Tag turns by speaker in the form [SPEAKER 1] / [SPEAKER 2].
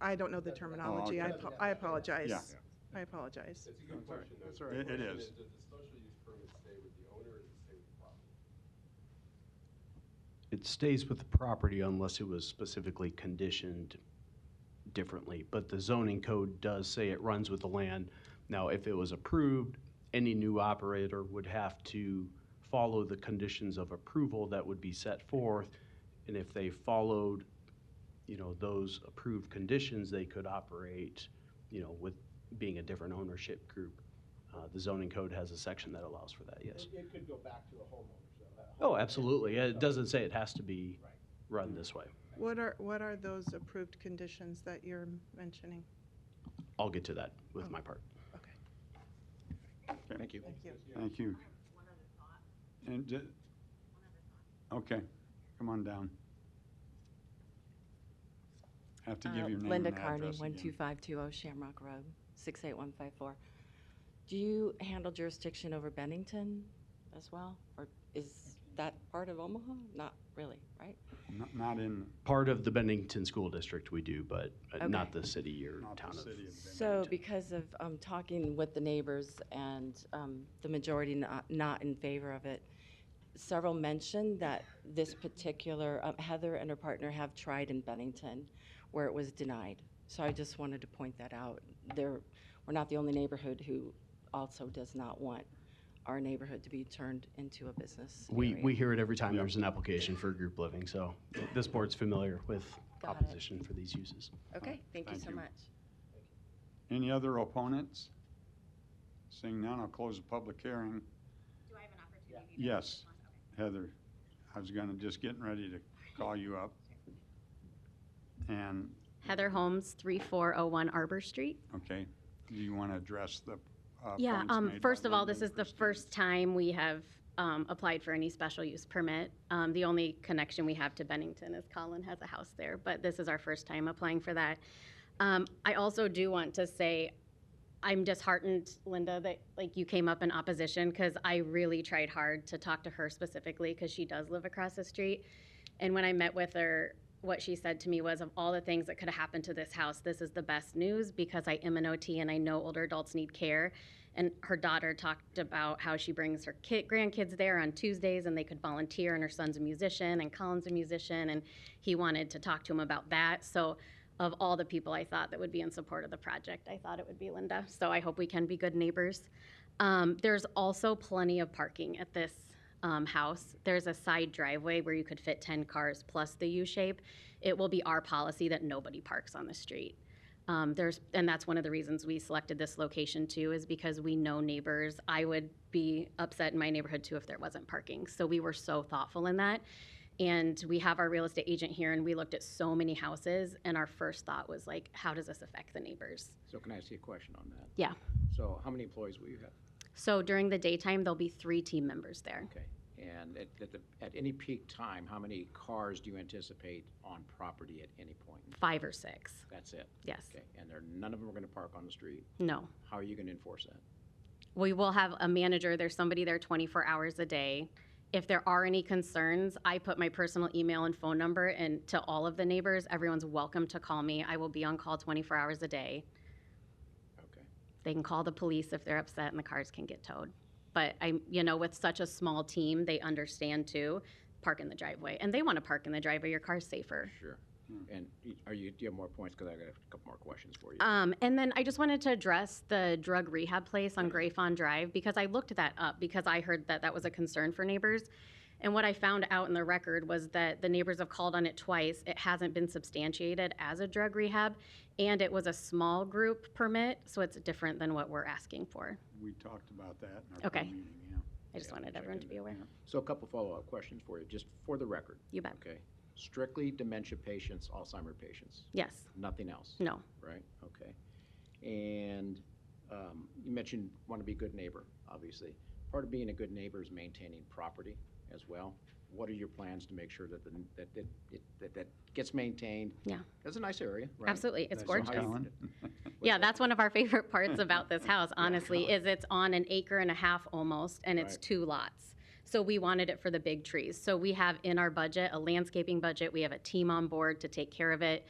[SPEAKER 1] I don't know the terminology. I
[SPEAKER 2] Oh, okay.
[SPEAKER 1] apo- I
[SPEAKER 2] Yeah.
[SPEAKER 1] apologize. I apologize.
[SPEAKER 3] It's a good question, though.
[SPEAKER 2] all right.
[SPEAKER 3] The
[SPEAKER 2] It- it
[SPEAKER 3] question
[SPEAKER 2] is.
[SPEAKER 3] Does the special use permit stay with the owner or does it stay with the property?
[SPEAKER 4] It stays with the property unless it was specifically conditioned differently, but the zoning code does say it runs with the land. Now, if it was approved, any new operator would have to follow the conditions of approval that would be set forth. And if they followed, you know, those approved conditions, they could operate, you know, with being a different ownership group. Uh, the zoning code has a section that allows for that, yes.
[SPEAKER 2] It it could go back to the homeowners, though. that
[SPEAKER 4] Oh,
[SPEAKER 2] homeowner-
[SPEAKER 4] absolutely. It doesn't say it has to be run this way.
[SPEAKER 1] What are, what are those approved conditions that you're mentioning?
[SPEAKER 4] I'll get to that with my part.
[SPEAKER 5] Thank you.
[SPEAKER 1] Thank you.
[SPEAKER 5] Thank you. And, ju- okay, come on down. Have to
[SPEAKER 6] Uh,
[SPEAKER 5] give your name and
[SPEAKER 6] Linda
[SPEAKER 5] address
[SPEAKER 6] Carney,
[SPEAKER 5] again.
[SPEAKER 6] 12520 Shamrock Road, 68154. Do you handle jurisdiction over Bennington as well? Or is that part of Omaha? Not really, right?
[SPEAKER 5] Not- Not in,
[SPEAKER 4] Part of the Bennington School District we do, but uh, not
[SPEAKER 6] Okay.
[SPEAKER 4] the city or
[SPEAKER 5] not
[SPEAKER 4] town
[SPEAKER 5] the
[SPEAKER 4] of.
[SPEAKER 5] city of
[SPEAKER 6] So
[SPEAKER 5] Bennington.
[SPEAKER 6] because of um, talking with the neighbors and um, the majority not- not in favor of it, several mentioned that this particular, uh, Heather and her partner have tried in Bennington where it was denied. So I just wanted to point that out. There, we're not the only neighborhood who also does not want our neighborhood to be turned into a business
[SPEAKER 4] We,
[SPEAKER 6] area.
[SPEAKER 4] we hear it every time there's an application for group living, so this board's familiar with
[SPEAKER 6] Got it.
[SPEAKER 4] opposition for these uses.
[SPEAKER 6] Okay, thank you
[SPEAKER 5] Thank
[SPEAKER 6] so
[SPEAKER 5] you.
[SPEAKER 6] much.
[SPEAKER 5] Any other opponents? Seeing none, I'll close the public hearing.
[SPEAKER 7] Do I have an opportunity? to
[SPEAKER 5] Yes,
[SPEAKER 7] respond? Okay.
[SPEAKER 5] Heather, I was gonna, just getting ready to call you up. And,
[SPEAKER 7] Heather Holmes, 3401 Arbor Street.
[SPEAKER 5] okay, do you wanna address the uh,
[SPEAKER 7] Yeah,
[SPEAKER 5] points
[SPEAKER 7] um,
[SPEAKER 5] made by
[SPEAKER 7] first of all, this
[SPEAKER 5] Linda
[SPEAKER 7] is
[SPEAKER 5] and
[SPEAKER 7] the
[SPEAKER 5] Christine?
[SPEAKER 7] first time we have, um, applied for any special use permit. Um, the only connection we have to Bennington is Colin has a house there, but this is our first time applying for that. Um, I also do want to say, I'm disheartened, Linda, that like you came up in opposition, because I really tried hard to talk to her specifically, because she does live across the street. And when I met with her, what she said to me was, of all the things that could have happened to this house, this is the best news, because I am an OT and I know older adults need care. And her daughter talked about how she brings her kid, grandkids there on Tuesdays and they could volunteer, and her son's a musician, and Colin's a musician, and he wanted to talk to him about that. So, of all the people I thought that would be in support of the project, I thought it would be Linda. So, I hope we can be good neighbors. Um, there's also plenty of parking at this um, house. There's a side driveway where you could fit 10 cars plus the U shape. It will be our policy that nobody parks on the street. Um, there's, and that's one of the reasons we selected this location too, is because we know neighbors. I would be upset in my neighborhood too if there wasn't parking. So we were so thoughtful in that. And we have our real estate agent here and we looked at so many houses and our first thought was like, how does this affect the neighbors?
[SPEAKER 2] So can I ask you a question on that?
[SPEAKER 7] Yeah.
[SPEAKER 2] So how many employees will you have?
[SPEAKER 7] So during the daytime, there'll be three team members there.
[SPEAKER 2] Okay. And at, at the, at any peak time, how many cars do you anticipate on property at any point?
[SPEAKER 7] Five or six,
[SPEAKER 2] That's it?
[SPEAKER 7] yes,
[SPEAKER 2] Okay. And there, none of them are gonna park on the street.
[SPEAKER 7] no.
[SPEAKER 2] How are you gonna enforce that?
[SPEAKER 7] We will have a manager, there's somebody there 24 hours a day. If there are any concerns, I put my personal email and phone number and to all of the neighbors, everyone's welcome to call me. I will be on call 24 hours a day.
[SPEAKER 2] Okay.
[SPEAKER 7] They can call the police if they're upset and the cars can get towed. But I, you know, with such a small team, they understand too, park in the driveway. And they want to park in the driveway, your car's safer.
[SPEAKER 2] Sure. And y- are you, do you have more points? Because I got a couple more questions for you.
[SPEAKER 7] Um, and then I just wanted to address the drug rehab place
[SPEAKER 2] Mm-hmm.
[SPEAKER 7] on Gray Fawn Drive because I looked that up because I heard that that was a concern for neighbors. And what I found out in the record was that the neighbors have called on it twice. It hasn't been substantiated as a drug rehab, and it was a small group permit, so it's different than what we're asking for.
[SPEAKER 5] We talked about that in our
[SPEAKER 7] Okay.
[SPEAKER 5] pre-meeting, yeah.
[SPEAKER 7] I just
[SPEAKER 2] Yeah,
[SPEAKER 7] wanted
[SPEAKER 2] check
[SPEAKER 7] everyone to
[SPEAKER 2] into
[SPEAKER 7] be
[SPEAKER 2] that.
[SPEAKER 7] aware.
[SPEAKER 2] So a couple follow-up questions for you, just for the record.
[SPEAKER 7] You bet.
[SPEAKER 2] Okay. Strictly dementia patients, Alzheimer patients,
[SPEAKER 7] Yes.
[SPEAKER 2] nothing else?
[SPEAKER 7] No.
[SPEAKER 2] Right, okay. And um, you mentioned want to be a good neighbor, obviously. Part of being a good neighbor is maintaining property as well. What are your plans to make sure that, the- that, that, it- that, that gets maintained?
[SPEAKER 7] Yeah.
[SPEAKER 2] That's a nice area, right?
[SPEAKER 7] Absolutely. It's
[SPEAKER 5] That's what
[SPEAKER 7] gorgeous.
[SPEAKER 5] Colin-
[SPEAKER 7] Yeah, that's one of our favorite parts about this house, honestly, is it's on an acre and a half almost, and it's
[SPEAKER 2] Right.
[SPEAKER 7] two lots. So we wanted it for the big trees. So we have in our budget, a landscaping budget, we have a team on board to take care of it.